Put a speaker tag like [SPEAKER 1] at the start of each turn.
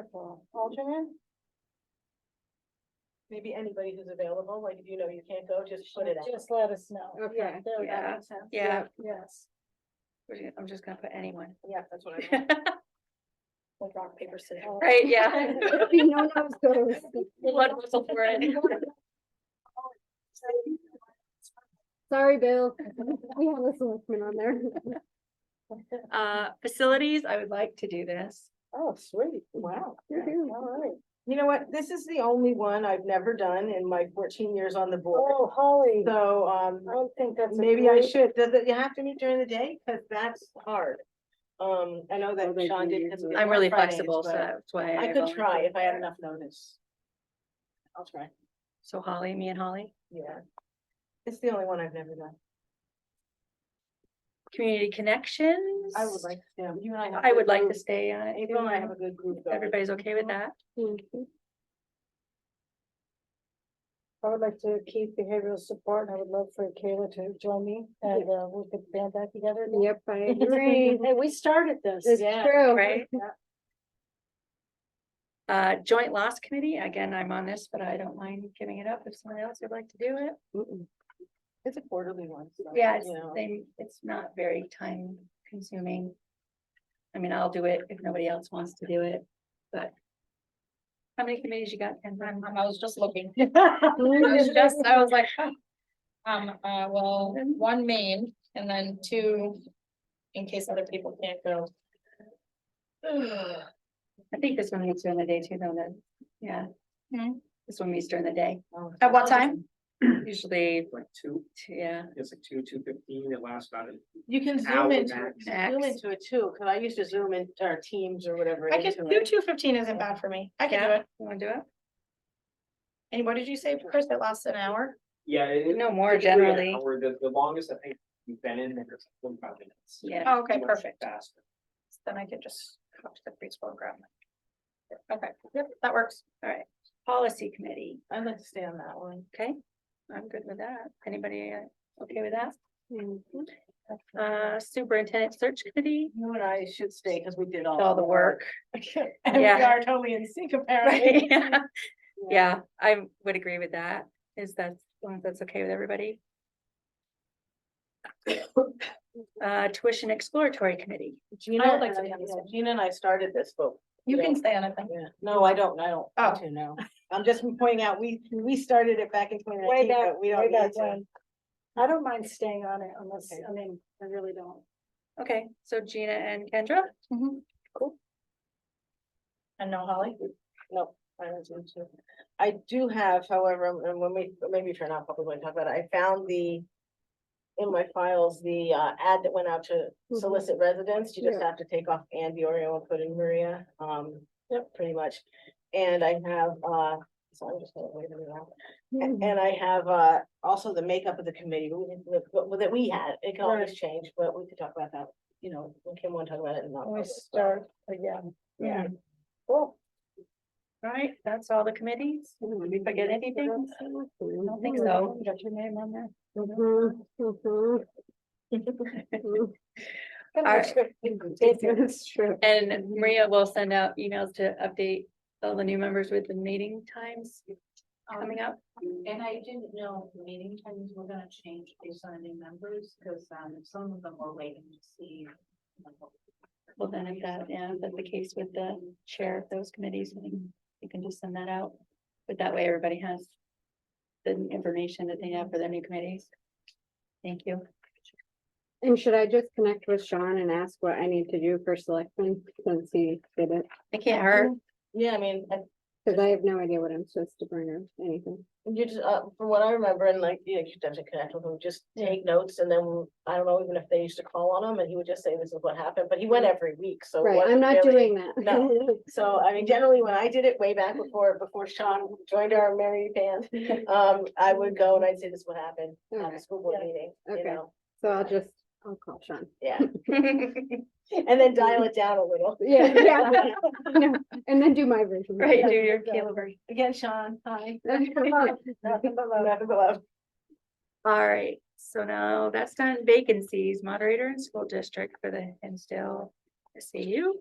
[SPEAKER 1] Triple alternate?
[SPEAKER 2] Maybe anybody who's available, like if you know you can't go, just put it out.
[SPEAKER 1] Just let us know.
[SPEAKER 3] Okay,
[SPEAKER 1] Yeah, that would-
[SPEAKER 3] yeah,
[SPEAKER 1] that makes sense.
[SPEAKER 3] yeah.
[SPEAKER 1] Yes.
[SPEAKER 3] We're- I'm just gonna put anyone.
[SPEAKER 2] Yeah, that's what I meant. Like rock, paper, scissors.
[SPEAKER 3] Right, yeah.
[SPEAKER 1] No, no, so-
[SPEAKER 3] One whistle for it.
[SPEAKER 4] Sorry, Bill. We have a selectman on there.
[SPEAKER 3] Uh, facilities, I would like to do this.
[SPEAKER 2] Oh, sweet, wow.
[SPEAKER 4] Woohoo.
[SPEAKER 2] All right. You know what, this is the only one I've never done in my fourteen years on the board,
[SPEAKER 1] Oh, Holly, I
[SPEAKER 2] so, um,
[SPEAKER 1] don't think that's. a
[SPEAKER 2] maybe I
[SPEAKER 1] great-
[SPEAKER 2] should, does it, you have to meet during the day, cause that's hard. Um, I know that
[SPEAKER 4] Oh, they
[SPEAKER 2] Sean
[SPEAKER 4] do
[SPEAKER 2] did.
[SPEAKER 4] use
[SPEAKER 2] 'cause
[SPEAKER 4] it.
[SPEAKER 2] we did
[SPEAKER 3] I'm
[SPEAKER 2] on
[SPEAKER 3] really
[SPEAKER 2] Fridays,
[SPEAKER 3] flexible, so
[SPEAKER 2] but
[SPEAKER 3] that's why.
[SPEAKER 2] I could try
[SPEAKER 3] volunteered.
[SPEAKER 2] if I had enough notice. I'll try,
[SPEAKER 3] So Holly, me and Holly,
[SPEAKER 2] yeah. It's the only one I've never done.
[SPEAKER 3] community connections.
[SPEAKER 2] I would like, yeah, you and I. have
[SPEAKER 3] I
[SPEAKER 2] a
[SPEAKER 3] would like
[SPEAKER 2] group.
[SPEAKER 3] to stay on it.
[SPEAKER 2] April and I have a good group. going.
[SPEAKER 3] Everybody's okay with that?
[SPEAKER 4] Mhm.
[SPEAKER 1] I would like to keep behavioral support and I would love for Kayla to join me and uh, we could band back together. and-
[SPEAKER 4] Yep, I agree.
[SPEAKER 1] Hey, we started this.
[SPEAKER 4] It's true.
[SPEAKER 3] Right? Uh, joint loss committee, again, I'm on this, but I don't mind giving it up if someone else would like to do it.
[SPEAKER 4] Mm-mm.
[SPEAKER 2] It's a quarterly one. so,
[SPEAKER 3] Yeah, it's,
[SPEAKER 2] you know.
[SPEAKER 3] they, it's not very time consuming. I mean, I'll do it if nobody else wants to do it, but. How many committees you got? Ken?
[SPEAKER 5] Um, I was just looking. I was
[SPEAKER 1] It's
[SPEAKER 5] just, I was like, huh. um, uh, well, one main and then two, in case other people can't go.
[SPEAKER 3] I think this one meets during the day too, though, then, yeah.
[SPEAKER 5] Hmm.
[SPEAKER 3] This one meets during the day,
[SPEAKER 2] Oh,
[SPEAKER 5] At what time?
[SPEAKER 3] usually,
[SPEAKER 6] like two,
[SPEAKER 3] yeah,
[SPEAKER 6] it's like two, two fifteen, it lasts about an
[SPEAKER 2] You can zoom
[SPEAKER 6] hour
[SPEAKER 2] into,
[SPEAKER 6] max.
[SPEAKER 2] zoom
[SPEAKER 3] Max.
[SPEAKER 2] into it too, cause I used to zoom in, or Teams or whatever.
[SPEAKER 5] I could,
[SPEAKER 2] into
[SPEAKER 5] two,
[SPEAKER 2] it.
[SPEAKER 5] two fifteen isn't bad for me. I can do
[SPEAKER 3] yeah,
[SPEAKER 5] it.
[SPEAKER 3] you wanna do it?
[SPEAKER 5] And what did you say, Chris? It lasts an hour?
[SPEAKER 6] Yeah. it- it-
[SPEAKER 3] No more
[SPEAKER 6] typically an
[SPEAKER 3] generally,
[SPEAKER 6] hour. the, the longest I think we've been in there is forty-five minutes.
[SPEAKER 3] yeah,
[SPEAKER 5] Oh, Okay,
[SPEAKER 6] Much
[SPEAKER 5] perfect.
[SPEAKER 6] Faster.
[SPEAKER 5] Then I could just hop to the preschool and grab. my- Okay, yep, that works.
[SPEAKER 3] Oh. policy committee,
[SPEAKER 2] I'd like to stay on that one.
[SPEAKER 3] okay? I'm good with that, anybody uh, okay with that?
[SPEAKER 1] Hmm.
[SPEAKER 4] Mhm.
[SPEAKER 3] Uh, superintendent search committee,
[SPEAKER 2] You and I should stay, cause we did all.
[SPEAKER 3] all the work.
[SPEAKER 2] And we
[SPEAKER 3] Yeah.
[SPEAKER 2] are totally in sync apparently.
[SPEAKER 3] Right, yeah. Yeah, I would agree with that. Is that, as long as that's okay with everybody? Uh, tuition exploratory committee.
[SPEAKER 2] Gina
[SPEAKER 5] I would like to
[SPEAKER 2] and
[SPEAKER 5] be
[SPEAKER 2] I-
[SPEAKER 5] on this
[SPEAKER 2] yeah,
[SPEAKER 5] one.
[SPEAKER 2] Gina and I started this, but.
[SPEAKER 5] You can
[SPEAKER 2] Yeah.
[SPEAKER 5] stay on it then.
[SPEAKER 2] Yeah, no, I don't, I don't, I
[SPEAKER 5] Oh.
[SPEAKER 2] do know. I'm just pointing out, we, we started it back in twenty nineteen,
[SPEAKER 1] back-
[SPEAKER 2] but we
[SPEAKER 1] way
[SPEAKER 2] don't
[SPEAKER 1] back
[SPEAKER 2] need to.
[SPEAKER 1] when. I don't mind staying on it unless,
[SPEAKER 2] Okay.
[SPEAKER 1] I mean, I really don't.
[SPEAKER 3] Okay, so Gina and Kendra,
[SPEAKER 5] And no Holly?
[SPEAKER 2] No, I don't think so. I do have, however, and when we, maybe if you're not probably going to talk about it, I found the. In my files, the uh ad that went out to
[SPEAKER 1] Mm-hmm.
[SPEAKER 4] Mhm.
[SPEAKER 2] solicit residents, you just
[SPEAKER 4] Yeah.
[SPEAKER 2] have to take off Ann Diorio and put in Maria, um, pretty much. And I have, uh, so I'm just gonna wait a minute.
[SPEAKER 4] Mhm.
[SPEAKER 1] Mm-hmm.
[SPEAKER 2] A- And I have, uh, also the makeup of the committee, we didn't- the- but- that we had, it can always change, but we could talk about that, you know, when Kim wanna talk about it. in
[SPEAKER 1] When we
[SPEAKER 2] non-public, so.
[SPEAKER 1] start again. Mm-hmm.
[SPEAKER 2] Yeah.
[SPEAKER 1] Cool.
[SPEAKER 3] right? That's all the committees? Did we forget anything? I don't think so.
[SPEAKER 1] Got your name on there.
[SPEAKER 4] Mhm, mhm. Mhm.
[SPEAKER 3] right.
[SPEAKER 4] It's true.
[SPEAKER 3] And Maria will send out emails to update all the new members with the meeting times coming up.
[SPEAKER 7] And I didn't know if the meeting times were gonna change based on new members, because um some of them were waiting to see. like, what-
[SPEAKER 3] Well, then if that, yeah, if that's the case with the chair of those committees, I think you can just send that out. But that way everybody has the information that they have for their new committees. Thank you.
[SPEAKER 4] And should I just connect with Sean and ask what I need to do for selectmen since he did it?
[SPEAKER 3] It can't hurt.
[SPEAKER 2] Yeah, I mean, I
[SPEAKER 4] Cause I have no idea what I'm supposed to bring or anything.
[SPEAKER 2] You just, uh, from what I remember, and like, you know, you have to connect with him, just take notes, and then, I don't know, even if they used to call on him, and he would just say, this is what happened, but he went every week, so. it
[SPEAKER 4] Right,
[SPEAKER 2] wasn't
[SPEAKER 4] I'm not
[SPEAKER 2] really-
[SPEAKER 4] doing that.
[SPEAKER 2] no. So, I mean, generally, when I did it way back before, before Sean joined our merry band, um, I would go and I'd say, this is what happened at
[SPEAKER 4] Okay.
[SPEAKER 2] the school board
[SPEAKER 1] Yeah.
[SPEAKER 2] meeting, you
[SPEAKER 4] Okay.
[SPEAKER 2] know,
[SPEAKER 4] So I'll just, I'll call Sean.
[SPEAKER 2] yeah. And then dial it down a little.
[SPEAKER 4] Yeah, yeah. No, And then do my version.
[SPEAKER 3] Right, do your Caleb. version.
[SPEAKER 2] Again, Sean, hi.
[SPEAKER 1] Nothing but love.
[SPEAKER 2] Nothing but love.
[SPEAKER 3] All right, so now that's done vacancies, moderator and school district for the Hinsdale SAU.